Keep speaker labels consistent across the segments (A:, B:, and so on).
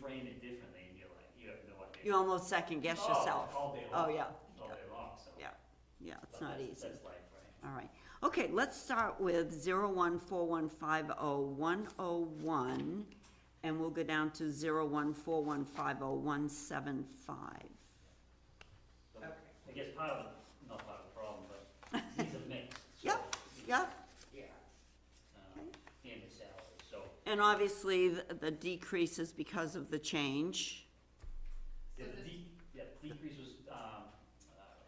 A: frame it differently and you're like, you have no idea.
B: You almost second guess
A: Oh,
B: yourself.
A: All day
B: Oh,
A: long.
B: yeah,
A: All day long, so.
B: yeah, yeah, it's
A: but
B: not
A: that's-
B: easy.
A: That's life, right?
B: All right, okay, let's start with zero one four one five oh one oh one, and we'll go down to zero one four one five oh one seven five.
A: But I guess part of, the- not part of the problem, but these are mixed. so,
B: Yep, Yep,
A: Yeah. Um, and the salary, so
B: and obviously, the the decrease is because of the change.
A: Yeah,
C: So
A: the
C: this-
A: de- yeah, the decrease was, um, uh,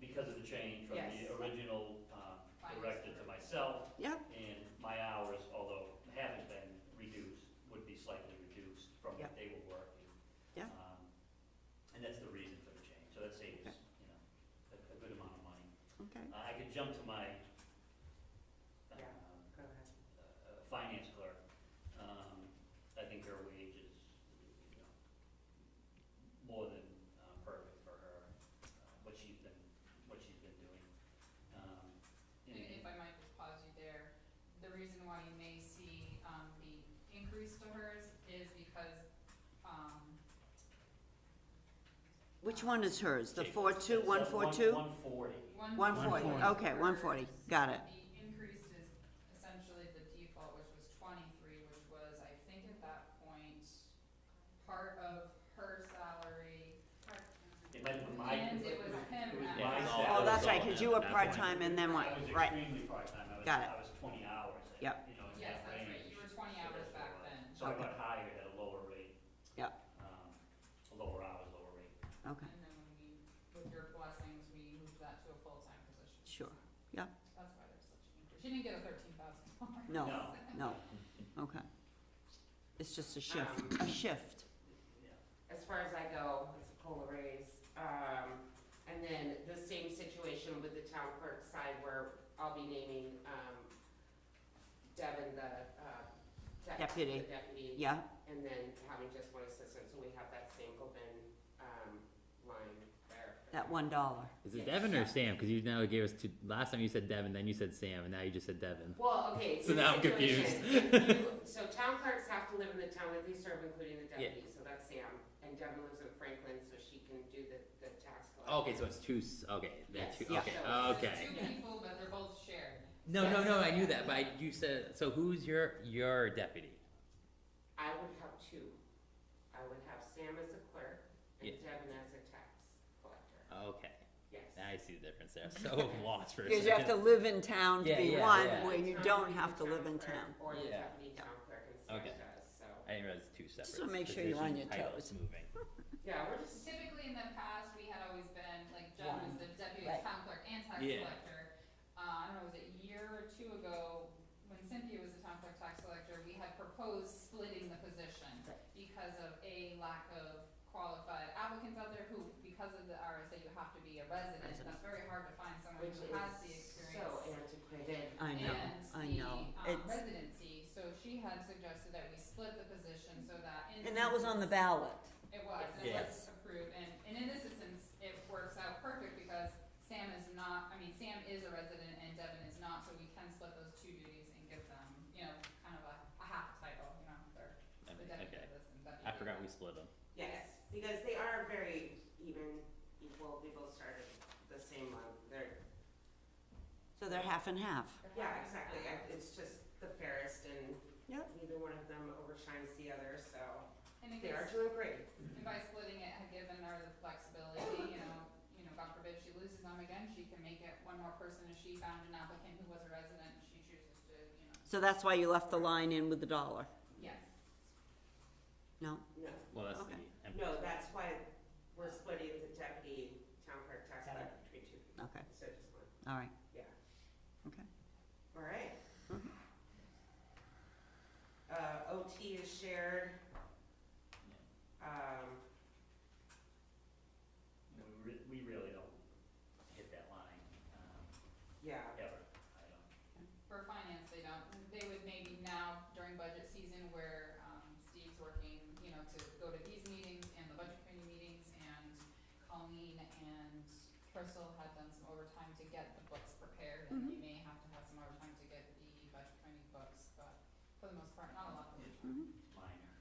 A: because of the change from
C: Yes.
A: the original, um,
C: Finance
A: director to
C: director.
A: myself,
B: Yep,
A: and my hours, although haven't been reduced, would be slightly reduced from what
B: Yep.
A: they were working.
B: Yeah.
A: Um, And that's the reason for the change, so that saves,
B: Okay.
A: you know, a, a good amount of money.
B: okay,
A: Uh, I could jump to my, um,
C: Yeah. Go ahead.
A: uh, uh, finance clerk, um, I think her wage is, you know, more than, uh, perfect for her, uh, what she's been, what she's been doing. Um,
C: And
A: and-
C: If I might just pause you there, the reason why you may see, um, the increase to hers is because, um,
B: which one is hers, the
A: Okay,
B: four two,
A: so
B: one four two?
A: One forty.
C: one.
B: One forty, okay, one forty, got it,
C: The increase is essentially the default, which was twenty-three, which was, I think at that point, part of her salary.
A: It might have been my.
C: And it was him
A: It was
C: at
A: my
C: that
A: salary.
B: oh, that's
D: all
B: right, cause you were
D: at that point.
B: part-time and then
A: I
B: what,
A: was
B: right,
A: extremely part-time, I was,
B: Got it.
A: I was twenty hours, I-
B: Yep.
A: you know, in
C: Yes,
A: that
C: that's right.
A: range.
C: You were 20
A: so
C: hours
A: that's what
C: back
A: it was.
C: then.
A: So I
B: Okay.
A: got hired at a lower rate.
B: Yep.
A: Um, a lower hours, lower rate.
B: okay,
C: And then when we, with your blessings, we moved that to a full-time position.
B: Sure.
C: So
B: Yeah.
C: That's why there's such an increase. She didn't get a thirteen thousand dollar.
B: No.
A: No.
B: no, okay. It's just a shift, a shift,
A: Yeah.
E: as far as I go, it's a cola raise. Um, and then the same situation with the town clerk side where I'll be naming, um, Devin the, uh, dep-
B: Deputy.
E: the Deputy.
B: yeah,
E: And then having just one assistant, so we have that Sankoven, um, line there.
B: that one dollar,
D: Is it Devin or Sam? Because you now gave us two. Last time you said Devin, then you said Sam, and now you just said Devin.
E: Well, okay.
D: So
E: the
D: now I'm
E: situation,
D: confused.
E: if you- So town clerks have to live in the town that they serve, including the
D: Yeah.
E: deputy, so that's Sam. And Devin lives in Franklin, so she can do the, the tax collection.
D: Okay, so it's two. s- Okay, they're
E: Yes.
D: two.
E: Yeah.
D: Okay,
E: So
C: There's
D: okay.
C: Two people, but they're both shared.
D: No, no, no. I knew that, but I, you said so. Who's your your deputy?
E: I would have two. I would have Sam as a clerk and
D: Yeah.
E: Devin as a tax collector,
D: Okay,
E: yes.
D: I see the difference there. So lost for a
B: because you have to
D: second.
B: live in town to
D: Yeah,
B: be
D: yeah,
B: one,
D: yeah.
B: where you
E: Town
B: don't
E: clerk,
B: have to
E: town
B: live in
E: clerk,
B: town.
E: Or the
D: Yeah.
E: deputy town clerk and Sam
D: Okay.
E: does, so.
D: I didn't realize it's two separate.
B: wanna make sure you're on
D: position
B: your
D: titles
B: toes.
D: Moving.
E: Yeah, we're just,
C: Typically in the past, we had always been, like Jen was the deputy
B: Right.
C: town clerk and tax
D: Yeah.
C: collector. Uh, I don't know, was it a year or two ago, when Cynthia was the town clerk tax collector, we had proposed splitting the position because of a lack of qualified applicants out there who, because of the RSA, you have to be a resident.
B: Resident.
C: That's very hard to find someone
E: which
C: who has the
E: is so antiquated.
C: experience.
B: I know, I know.
C: And the um,
B: It's-
C: residency, so she had suggested that we split the position so that in.
B: And that was on the ballot.
C: It was, and it was
D: Yes.
C: approved, and, and in this instance, it works out perfect because Sam is not, I mean, Sam is a resident and Devin is not, so we can split those two duties and give them, you know, kind of a, a half title, you know, they're
D: I
C: the
D: mean,
C: deputy
D: okay,
C: of this and deputy.
D: I forgot
C: of that.
D: we split them.
E: Yes, because they are very even, equal, they both started the same month, they're,
B: So they're half and half.
E: yeah, exactly, I- it's just the fairest and
B: Yep.
E: neither one of them overshines the other, so
C: And it
E: they are
C: gives,
E: doing great.
C: and by splitting it, had given her the flexibility, you know, you know, God forbid she loses them again, she can make it one more person if she found an applicant who was a resident, and she chooses to, you know,
B: So that's why you left the line in with the dollar,
C: yes.
B: no?
E: No,
D: Well, that's
B: Okay.
D: the.
E: No, that's why we're splitting the deputy town clerk tax collector between two people,
B: Okay,
E: instead of just one,
B: all right,
E: yeah.
B: okay.
E: All right. Uh, OT is shared. Um,
A: We re- we really don't hit that line, um,
E: yeah,
A: ever, I don't.
C: For finance, they don't, they would maybe now during budget season where, um, Steve's working, you know, to go to these meetings and the budget committee meetings and Colleen and Crystal had done some overtime to get the books prepared and you may have to have some overtime to get the budget committee books, but for the most part, not a lot of overtime.
B: Mhm.